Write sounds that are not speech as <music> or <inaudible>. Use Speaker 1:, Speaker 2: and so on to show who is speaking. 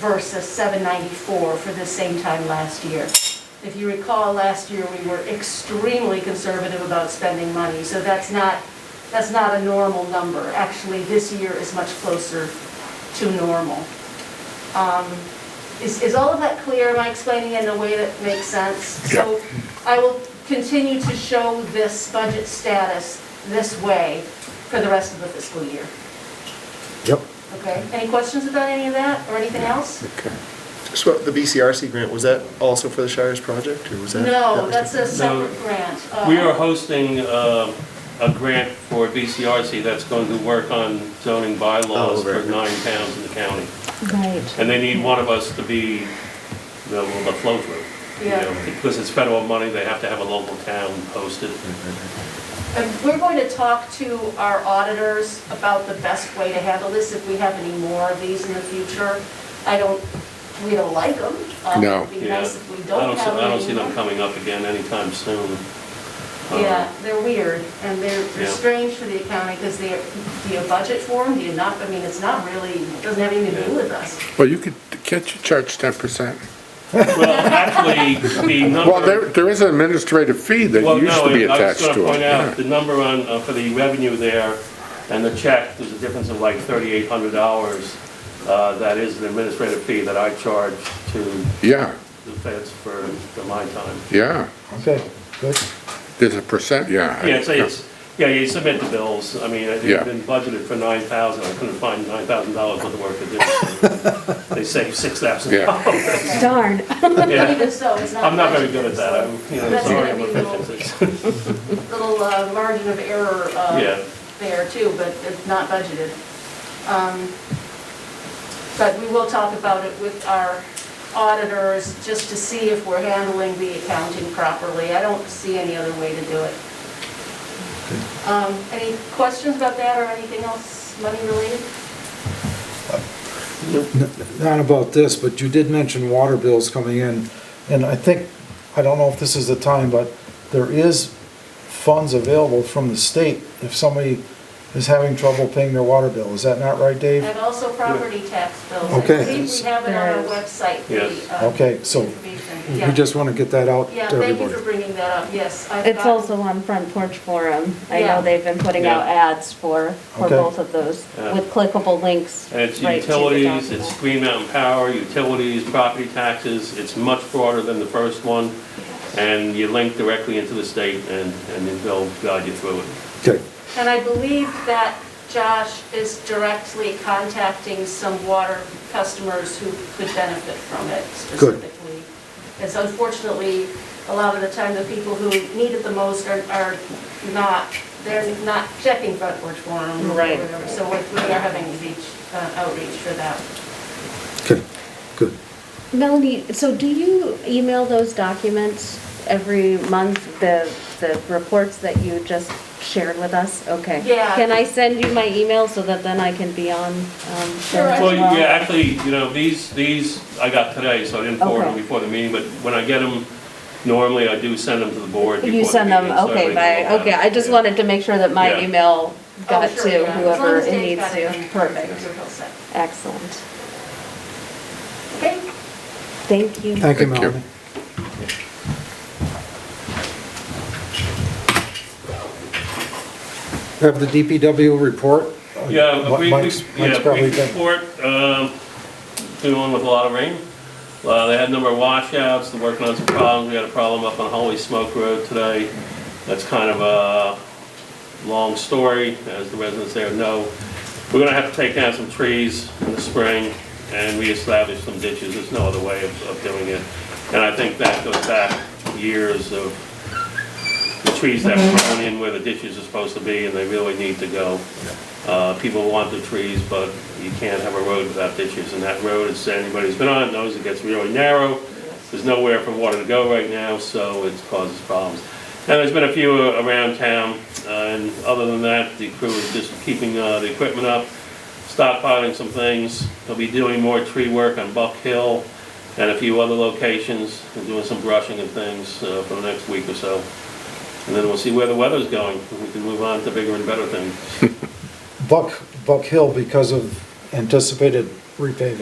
Speaker 1: versus 794 for the same time last year. If you recall, last year, we were extremely conservative about spending money, so that's not, that's not a normal number. Actually, this year is much closer to normal. Um, Is, is all of that clear? Am I explaining it in a way that makes sense? So I will continue to show this budget status this way for the rest of the fiscal year.
Speaker 2: Yep.
Speaker 1: Okay, any questions about any of that or anything else?
Speaker 2: Okay.
Speaker 3: So the BCRC grant, was that also for the Shires project, or was that? that
Speaker 1: No,
Speaker 3: was
Speaker 1: that's a
Speaker 3: different?
Speaker 1: separate grant. Uh,
Speaker 4: We are hosting uh, a grant for BCRC that's going to work on zoning bylaws
Speaker 3: Oh, right.
Speaker 4: for nine towns in the county.
Speaker 5: Right.
Speaker 4: And they need one of us to be the, the flow through. you
Speaker 1: Yeah.
Speaker 4: know, Because it's federal money, they have to have a local town host it.
Speaker 1: And we're going to talk to our auditors about the best way to handle this, if we have any more of these in the future. I don't, we don't like them. Um,
Speaker 2: No.
Speaker 1: It'd be
Speaker 4: Yeah.
Speaker 1: nice if we
Speaker 4: I
Speaker 1: don't
Speaker 4: see-
Speaker 1: have any.
Speaker 4: I don't see them coming up again anytime soon. Um,
Speaker 1: Yeah, they're weird, and they're they're
Speaker 4: Yeah.
Speaker 1: strange for the accounting, because they, do you budget for them, do you not, I mean, it's not really, it doesn't have anything to do with us.
Speaker 2: Well, you could, can't you charge ten percent?
Speaker 4: Well, actually, the number.
Speaker 2: Well, there, there is an administrative fee that
Speaker 4: Well,
Speaker 2: used
Speaker 4: no,
Speaker 2: to be
Speaker 4: I-
Speaker 2: attached
Speaker 4: I was going to
Speaker 2: to
Speaker 4: point out,
Speaker 2: it.
Speaker 4: the number on, uh, for the revenue there and the check, there's a difference of like $3,800. uh, That is an administrative fee that I charge to
Speaker 2: Yeah,
Speaker 4: the feds for the my time.
Speaker 2: yeah,
Speaker 6: Okay, good.
Speaker 2: there's a percent, yeah.
Speaker 4: Yeah, so it's, yeah, you submit the bills. I mean, it
Speaker 2: Yeah.
Speaker 4: had been budgeted for 9000 I couldn't find $9,000 worth of work to
Speaker 2: <laughs>
Speaker 4: do. They saved $6,000.
Speaker 5: Darn. <laughs>
Speaker 1: But
Speaker 4: Yeah.
Speaker 1: Even so, it's not.
Speaker 4: I'm not very
Speaker 1: budgeted,
Speaker 4: good at that.
Speaker 1: so
Speaker 4: I'm, you know,
Speaker 1: That's gonna
Speaker 4: sorry, I'm
Speaker 1: be
Speaker 4: efficient.
Speaker 1: a little uh, margin of error
Speaker 4: Yeah.
Speaker 1: uh, there too, but it's not budgeted. Um, But we will talk about it with our auditors, just to see if we're handling the accounting properly. I don't see any other way to do it. Um, Any questions about that or anything else money related?
Speaker 6: Not about this, but you did mention water bills coming in, and I think, I don't know if this is the time, but there is funds available from the state if somebody is having trouble paying their water bill. Is that not right, Dave?
Speaker 1: And also property tax bills.
Speaker 6: Okay.
Speaker 1: I think we have it on our website. the,
Speaker 4: Yes.
Speaker 1: uh,
Speaker 6: Okay, so
Speaker 1: information.
Speaker 6: We
Speaker 1: Yeah.
Speaker 6: just want to get that out to
Speaker 1: Yeah, thank you
Speaker 6: everybody.
Speaker 1: for bringing that up, yes. I've
Speaker 5: It's
Speaker 1: got-
Speaker 5: also on Front Porch Forum. I
Speaker 1: Yeah.
Speaker 5: know they've been putting out
Speaker 4: Yeah.
Speaker 5: ads for, for
Speaker 6: Okay.
Speaker 5: both of those
Speaker 4: Yeah.
Speaker 5: with clickable links.
Speaker 4: And it's
Speaker 5: right to the
Speaker 4: utilities,
Speaker 5: document.
Speaker 4: it's Green Mountain Power, utilities, property taxes, it's much broader than the first one, and you link directly into the state, and, and then they'll guide you through it.
Speaker 6: Okay,
Speaker 1: And I believe that Josh is directly contacting some water customers who could benefit from it
Speaker 6: Good.
Speaker 1: specifically. It's unfortunately, a lot of the time, the people who need it the most are, are not, they're not checking front porch forum. or
Speaker 5: Right.
Speaker 1: whatever. So we we are having reach, uh, outreach for that.
Speaker 6: okay, good.
Speaker 5: Melanie, so do you email those documents every month, the, the reports that you just shared with us? Okay.
Speaker 1: Yeah.
Speaker 5: Can I send you my email so that then I can be on? um,
Speaker 1: Sure,
Speaker 5: there as
Speaker 4: Well,
Speaker 5: well?
Speaker 4: yeah, actually, you know, these, these I got today, so I didn't forward them
Speaker 5: Okay.
Speaker 4: before the meeting, but when I get them, normally I do send them to the board.
Speaker 5: You
Speaker 4: before the
Speaker 5: send them,
Speaker 4: meeting, so
Speaker 5: okay,
Speaker 4: everybody
Speaker 5: by,
Speaker 4: can look at
Speaker 5: okay,
Speaker 4: it.
Speaker 5: I just
Speaker 4: Yeah.
Speaker 5: wanted to make sure that my
Speaker 4: Yeah.
Speaker 5: email got
Speaker 1: Oh, sure,
Speaker 5: to
Speaker 1: yeah. As long
Speaker 5: whoever
Speaker 1: as
Speaker 5: it
Speaker 1: Dave's
Speaker 5: needs
Speaker 1: got
Speaker 5: to.
Speaker 1: then
Speaker 5: Perfect,
Speaker 1: you're all set.
Speaker 5: excellent.
Speaker 1: Okay,
Speaker 5: Thank you.
Speaker 6: Thank you,
Speaker 2: Thank you.
Speaker 6: Melanie. Have the DPW report?
Speaker 4: Yeah,
Speaker 6: What
Speaker 4: we, we-
Speaker 6: Oh, Mike's- Mike's
Speaker 4: yeah,
Speaker 6: probably
Speaker 4: we
Speaker 6: done.
Speaker 4: support, um, doing with a lot of rain. Uh, they had a number of washouts, they're working on some problems, we had a problem up on Holy Smoke Road today. That's kind of a long story, as the residents there know. We're gonna have to take down some trees in the spring and reestablish some ditches, there's no other way of, of doing it. And I think that goes back years of the trees that were grown in where the ditches are supposed to be, and they really need to go. Uh, People want the trees, but you can't have a road without ditches, and that road, as anybody's been on, knows it gets really narrow. There's nowhere for water to go right now, so it causes problems. And there's been a few uh, around town, uh, and other than that, the crew is just keeping uh, the equipment up, stockpiling some things. They'll be doing more tree work on Buck Hill and a few other locations, and doing some brushing and things uh, for the next week or so. And then we'll see where the weather's going, and we can move on to bigger and better things.
Speaker 6: Buck, Buck Hill because of anticipated repaving.